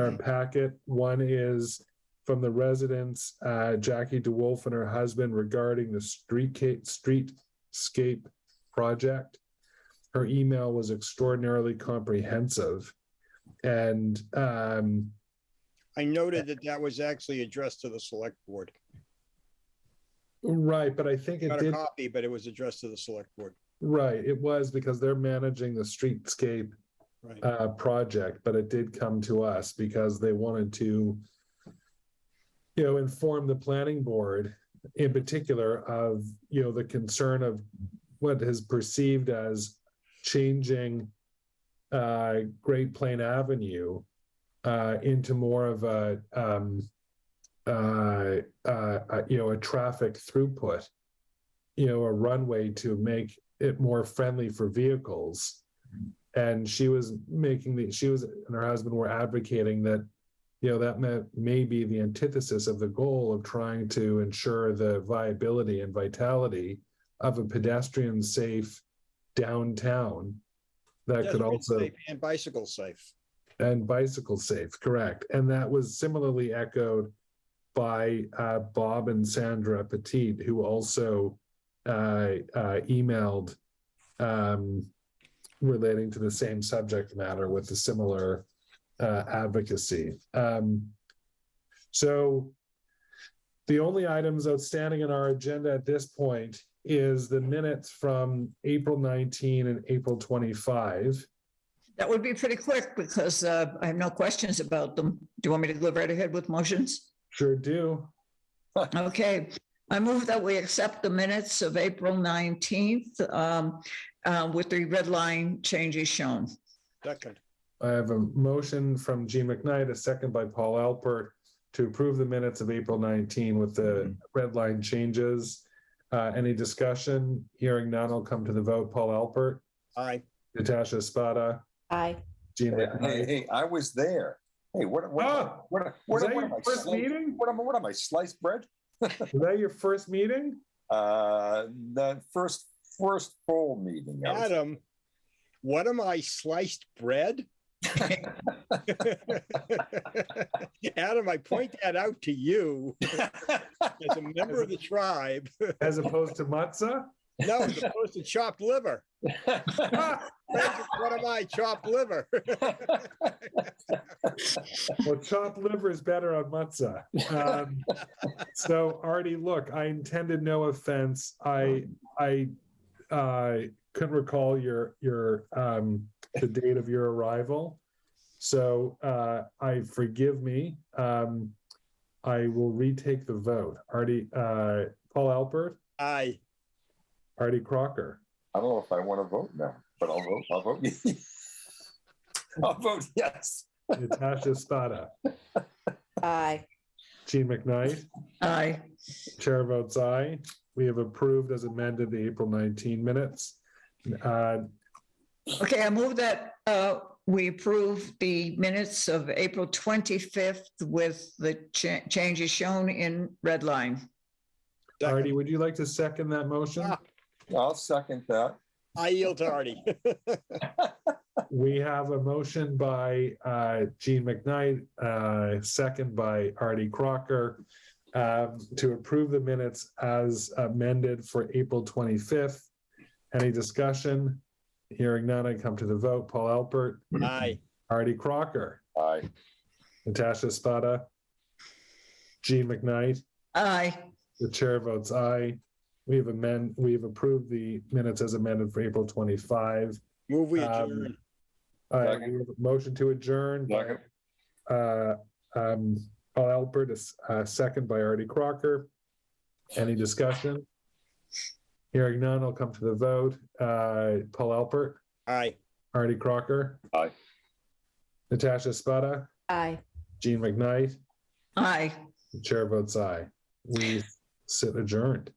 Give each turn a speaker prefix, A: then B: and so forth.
A: our packet. One is from the residents, uh, Jackie DeWolf and her husband regarding the streetca- streetscape project. Her email was extraordinarily comprehensive. And um,
B: I noted that that was actually addressed to the select board.
A: right, but I think it
B: Got a
A: did
B: copy, but it was addressed to the select board,
A: right. It was because they're managing the streetscape
B: right?
A: uh, project, but it did come to us because they wanted to, you know, inform the planning board in particular of, you know, the concern of what is perceived as changing uh, Great Plain Avenue uh, into more of a, um, uh, uh, uh, you know, a traffic throughput, you know, a runway to make it more friendly for vehicles and she was making the she was and her husband were advocating that you know that may, may be the antithesis of the goal of trying to ensure the viability and vitality of a pedestrian safe downtown that
B: Pedestrian
A: could also
B: safe And bicycle safe.
A: and bicycle safe correct and that was similarly echoed by uh, bob and sandra petit who also uh, uh, emailed um, relating to the same subject matter with a similar uh, advocacy um, so the only items outstanding on our agenda at this point is the minutes from april 19 and april 25
C: That would be pretty quick because uh, I have no questions about them. Do you want me to go right ahead with motions?
A: sure do
C: Okay, I move that we accept the minutes of April 19th um, uh, with the red line changes shown.
B: Second,
A: I have a motion from G McKnight, a second by Paul Alpert to approve the minutes of April 19 with the red line changes. Uh, any discussion? Hearing none, I'll come to the vote. Paul Alpert,
B: aye.
A: Natasha Espada,
D: Aye.
A: Jean
E: Hey,
A: McKnight.
E: hey, hey, I was there. Hey, what, what,
A: Oh,
E: what,
A: Was
E: what,
A: that
E: what
A: your
E: am I?
A: first
E: sliced-
A: meeting?
E: What am, what am I? Sliced bread?
A: Was that your first meeting?
E: Uh, the first, first full meeting. I was-
B: Adam, what am I sliced bread? Adam, I point that out to you as a member of the tribe.
A: As opposed to matzah?
B: No, as opposed to chopped liver.
A: Ah,
B: Francis, What am I, chopped liver?
A: Well, chopped liver is better on matzah. Um, so Artie, look, I intended no offense. I, I, uh, couldn't recall your, your, um, the date of your arrival. So, uh, I forgive me. Um, I will retake the vote. Artie, uh, Paul Alpert,
B: Aye.
A: Artie Crocker,
E: I don't know if I want to vote now, but I'll vote, I'll vote. I'll vote yes.
A: Natasha Spada,
D: Aye.
A: Gene McKnight,
C: Aye,
A: Chair votes aye. We have approved as amended the April 19 minutes. Uh,
C: okay, I move that uh, we approve the minutes of April 25th with the cha- changes shown in red line.
A: Artie, would you like to second that motion?
B: Ah.
E: I'll second that.
B: I yield to Artie.
A: We have a motion by uh, Gene McKnight, uh, second by Artie Crocker, um, to approve the minutes as amended for April 25th. Any discussion? Hearing none, I come to the vote. Paul Alpert,
B: Aye.
A: Artie Crocker,
E: Aye.
A: Natasha Spada, Gene McKnight.
C: Aye,
A: The chair votes aye. We have amend, we have approved the minutes as amended for April 25.
B: Move we
A: Um,
B: adjourn.
A: Uh,
E: Second.
A: we have a motion to adjourn. by,
E: Second.
A: Uh, um, Paul Alpert, a s- a second by Artie Crocker. Any discussion? Hearing none, I'll come to the vote. Uh, Paul Alpert,
B: Aye.
A: Artie Crocker.
E: Aye.
A: Natasha Spada,
D: Aye.
A: Gene McKnight,
C: aye.
A: the chair votes aye. We sit adjourned.